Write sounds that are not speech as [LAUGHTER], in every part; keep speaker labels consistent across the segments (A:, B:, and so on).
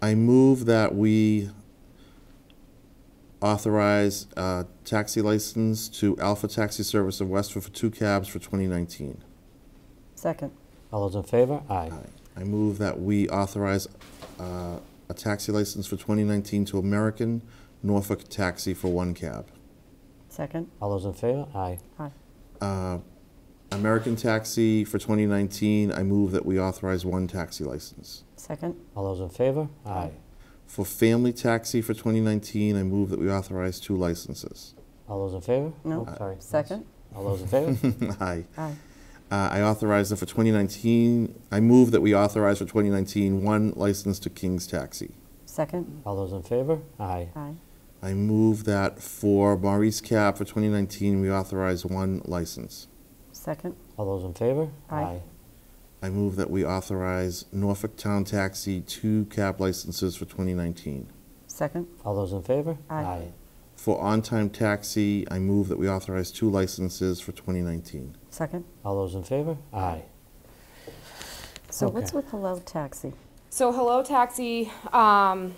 A: I move that we authorize uh, taxi license to Alpha Taxi Service of Westford for two cabs for 2019.
B: Second.
C: All those in favor? Aye.
A: I move that we authorize uh, a taxi license for 2019 to American Norfolk Taxi for one cab.
B: Second.
C: All those in favor? Aye.
B: Aye.
A: Uh, American Taxi for 2019, I move that we authorize one taxi license.
B: Second.
C: All those in favor? Aye.
A: For Family Taxi for 2019, I move that we authorize two licenses. [LAUGHS]
C: All those in favor?
B: No.
C: Oh, Sorry.
B: Second.
C: All those in [LAUGHS] favor?
A: Aye.
B: Aye.
A: Uh, I authorize that for 2019, I move that we authorize for 2019 one license to King's Taxi.
B: Second.
C: All those in favor? Aye.
B: Aye.
A: I move that for Maurice Cab for 2019, we authorize one license.
B: Second.
C: All those in favor?
B: Aye.
A: I move that we authorize Norfolk Town Taxi two cab licenses for 2019.
B: Second.
C: All those in favor?
B: Aye.
A: For on-time taxi, I move that we authorize two licenses for 2019.
B: Second.
C: All those in favor? Aye.
B: So what's
C: Okay.
B: with Hello Taxi?
D: So Hello Taxi, um,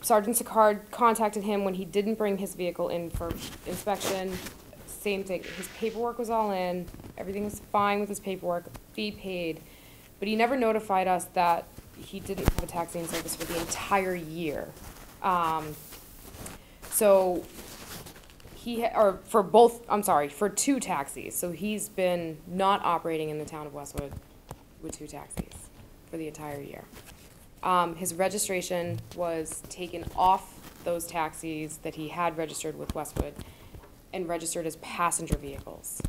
D: Sergeant Sicard contacted him when he didn't bring his vehicle in for inspection. Same thing, his paperwork was all in, everything was fine with his paperwork, fee paid. But he never notified us that he didn't have a taxiing service for the entire year. Um, so he, ha- or for both, I'm sorry, for two taxis. So he's been not operating in the town of Westwood with two taxis for the entire year. Um, his registration was taken off those taxis that he had registered with Westwood and registered as passenger vehicles.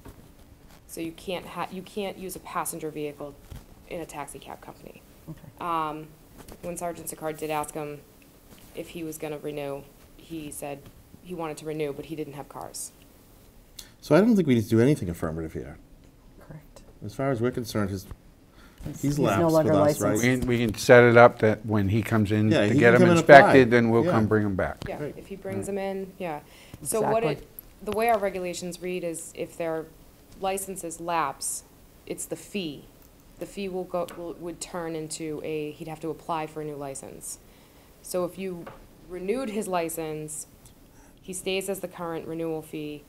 D: So you can't ha, you can't use a passenger vehicle in a taxi cab company.
B: Uh,
D: Um, when Sergeant Sicard did ask him if he was gonna renew, he said he wanted to renew, but he didn't have cars.
A: So I don't think we need to do anything affirmative here.
B: Correct.
A: As far as we're concerned, his, he's
B: no
A: lapsed with
B: longer
A: us, right?
B: licensed.
E: We can- we can set it up that when he comes in
A: Yeah,
E: to
A: he
E: get
A: can
E: him
A: come and apply.
E: inspected, then we'll
A: Yeah.
E: come bring him back.
D: Yeah,
A: Great.
D: if he brings them in, yeah. So what
C: Exactly.
D: it, the way our regulations read is if their licenses lapse, it's the fee. The fee will go, will, would turn into a, he'd have to apply for a new license. So if you renewed his license, he stays as the current renewal fee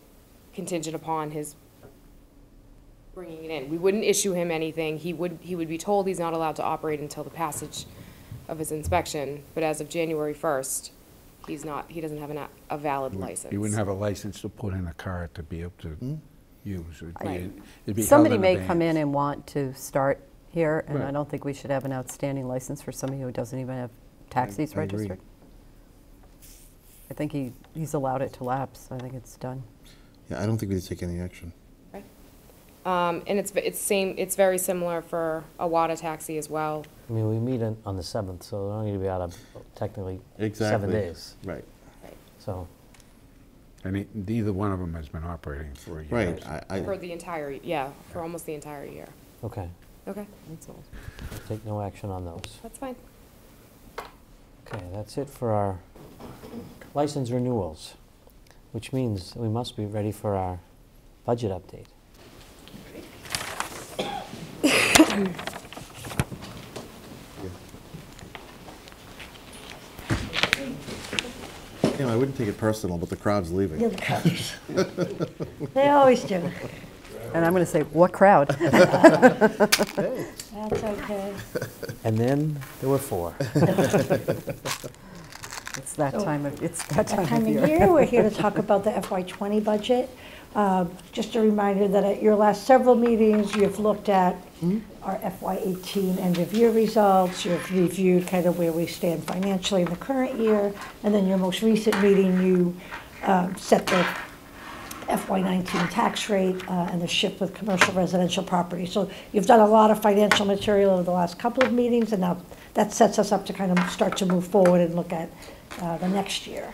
D: contingent upon his bringing it in. We wouldn't issue him anything. He would, he would be told he's not allowed to operate until the passage of his inspection, but as of January first, he's not, he doesn't have an, a- a valid license.
E: He wouldn't have a license to put in a car to be able
A: Hmm?
E: to use. It'd be-
B: Right.
E: it'd be held
B: Somebody
E: in
B: may
E: abeyance.
B: come in and want to start here, and I
E: Right.
B: don't think we should have an outstanding license for somebody who doesn't even have taxis
A: I agree.
B: registered. I think he, he's allowed it to lapse. I think it's done.
A: Yeah, I don't think we need to take any action.
D: Right. Um, and it's, it's same, it's very similar for a WADA taxi as well.
C: I mean, we meet on on the 7th, so we're only going to be out of technically seven days.
A: Right.
C: So,
E: And he- neither one of them has been operating for a year.
A: Right. I,
D: For
A: I,
D: the entire, yeah, for almost the entire year.
C: okay,
D: Okay,
C: we'll take no action on those.
D: that's fine.
C: Okay, that's it for our license renewals, which means we must be ready for our budget update.
A: you know, I wouldn't take it personal, but the crowd's leaving.
F: You're the coach. They always do.
B: And I'm going to say, what crowd? [LAUGHS]
F: That's okay.
C: And then there were four.
B: It's that time of, it's that
F: That
B: time
F: time
B: of
F: of
B: year.
F: year, we're here to talk about the FY '20 budget. Um, Just a reminder that at your last several meetings, you've looked at our FY '18 end-of-year results, you've reviewed kind of where we stand financially in the current year, and then your most recent meeting, you um, set the FY19 tax rate uh, and the shift with commercial residential property. So you've done a lot of financial material over the last couple of meetings, and now that sets us up to kind of start to move forward and look at uh, the next year.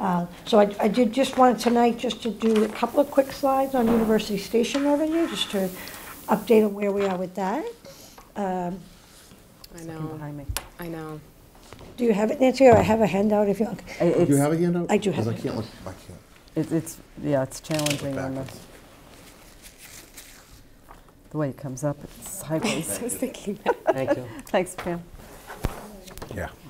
F: Uh, So I I did just want tonight just to do a couple of quick slides on University Station revenue, just to update on where we are with that.
D: I
B: Looking
D: know,
B: behind me.
D: I know.
F: Do you have it, Nancy, or I have a handout if you want?
A: Do
B: I-
A: you
B: it's-
A: have a handout?
F: I do have
A: 'Cause
F: one.
A: I can't look, I can't.
B: It, it's, yeah, it's challenging on the,
A: backwards.
B: the way it [LAUGHS] comes up, it's sideways.
D: I was thinking that.
C: Thank you.
B: Thanks, Pam.
E: Yeah.